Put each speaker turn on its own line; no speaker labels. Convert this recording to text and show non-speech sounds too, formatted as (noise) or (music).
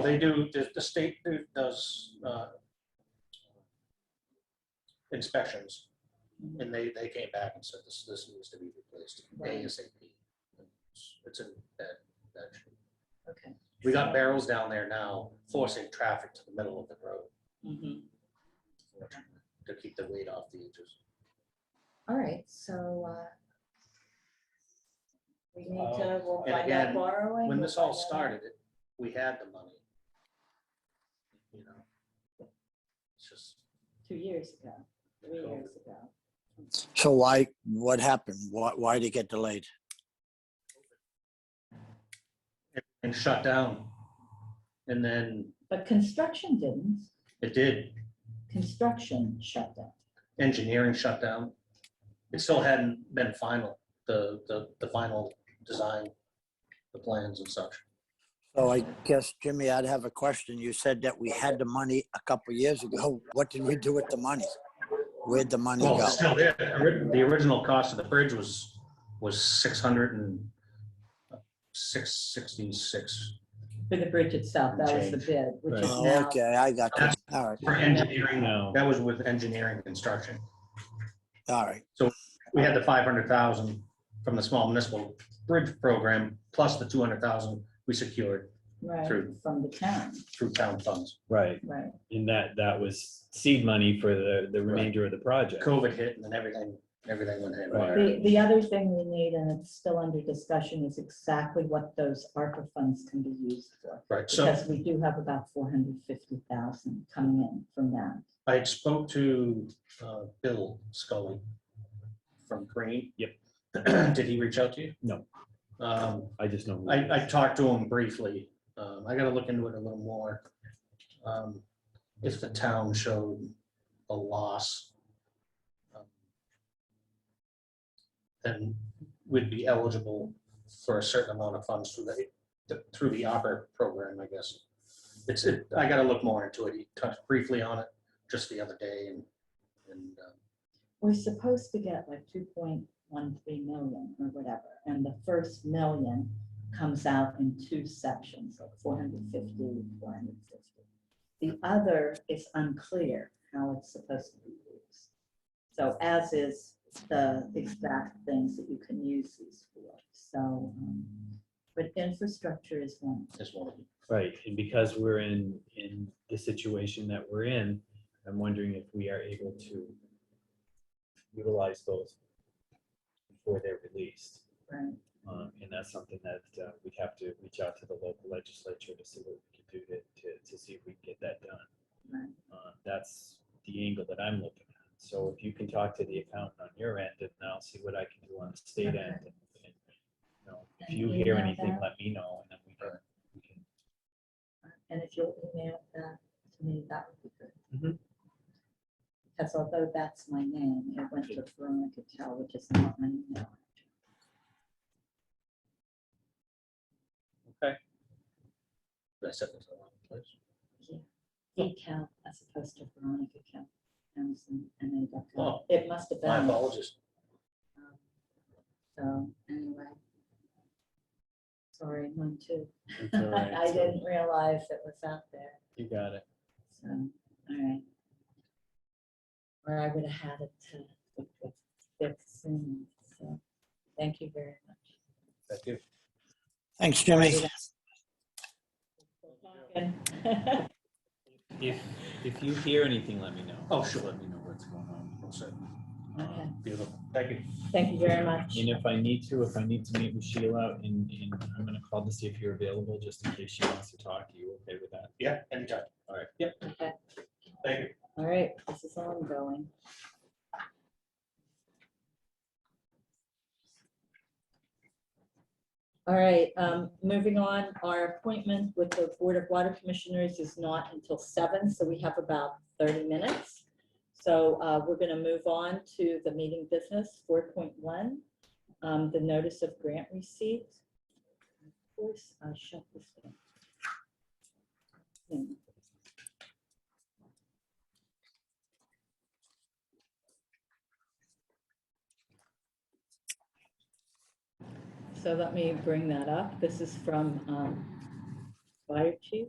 they do, the, the state do- does, uh, inspections, and they, they came back and said this, this needs to be replaced
Right.
ASAP. It's- It's in that, that. shape.
Okay.
We got barrels down there now forcing traffic to the middle of the road Mm-hmm.
Mhm.
unfortunately, to keep the weight off the edges.
All right, so, uh, we need to,
Uh,
we'll
and
find out
again,
borrowing.
When
we'll
this all
find out-
started, it- we had the money. You know? It's just.
Two years ago, three years ago.
So why, what happened? Why, why did it get delayed?
and shut down. And then
But construction didn't,
it did,
construction shut down.
engineering shut down. It still hadn't been final, the, the, the final design, the plans and such.
So I guess, Jimmy, I'd have a question. You said that we had the money a couple years ago. What did we do with the money? Where'd the money
Well,
go?
it's still there. Ori- The original cost of the bridge was, was six hundred and six sixty-six
For the bridge itself, that was the
Change.
bid, which is
Oh,
now,
Okay, I got you. All right,
for engineering.
No.
That was with engineering construction.
all right.
We had the five hundred thousand from the small municipal bridge program, plus the two hundred thousand we secured
right,
True.
from the town,
through town funds.
Right,
right.
and that, that was seed money for the, the remainder of the project.
COVID hit and then everything, everything went haywire.
The, the other thing we need, and it's still under discussion, is exactly what those ARPA funds can be used for.
Right, so
Because we do have about four hundred fifty thousand coming in from that.
I spoke to uh, Bill Scully from Green.
Yep.
(clears throat) Did he reach out to you?
No.
Um,
I just know.
I, I talked to him briefly. Um, I gotta look into it a little more. Um, If the town showed a loss, um, then we'd be eligible for a certain amount of funds through the, th- through the opera program, I guess. It's, it- I gotta look more into it. He touched briefly on it just the other day and, and um,
We're supposed to get like two point one three million or whatever, and the first million comes out in two sections, like 450, 450. The other is unclear how it's supposed to be used. So as is the exact things that you can use these for, so, um, but infrastructure is one.
is one of them.
Right, and because we're in, in the situation that we're in, I'm wondering if we are able to utilize those before they're released.
Right.
Um, and that's something that uh, we'd have to reach out to the local legislature to see what we can do to, to, to see if we can get that done.
Right.
Uh, That's the angle that I'm looking at. So if you can talk to the accountant on your end, and I'll see what I can do on the state end.
Okay.
and and, you know, If
And
you hear
email
anything,
that.
let me know, and then we can, we can
And if you'll email that to me, that would be good.
Mhm.
Because although that's my name, it went to Veronica Tell, which is not my email.
Did I said this in the wrong place.
Cal E as opposed to Veronica Cal. Townsend, and then dot
Oh.
com. It must have
My
been.
apologies.
um, So anyway. Sorry, one, (laughs) two.
It's all right,
I
so
didn't realize it was out there.
You got it.
So, all right. Or I would have had it to fix soon, so, thank you very much.
Thank you.
Thanks, Jimmy.
And-
If, if you hear anything, let me know.
Oh, sure.
Let me know what's going on.
Well said.
(laughs) Okay.
Beautiful. Thank you.
Thank you very much.
And if I need to, if I need to meet with Sheila, and, and I'm gonna call to see if you're available, just in case she wants to talk, you okay with that?
Yeah, anytime.
All right.
Yep.
Okay.
Thank you.
All right, this is ongoing. All right, um, moving on, our appointment with the Board of Water Commissioners is not until seven, so we have about thirty minutes. So, uh, we're gonna move on to the meeting business, four point one, um, the notice of grant receipt. Of course, I'll shut this down. Hmm. So let me bring that up. This is from um, Fire Chief.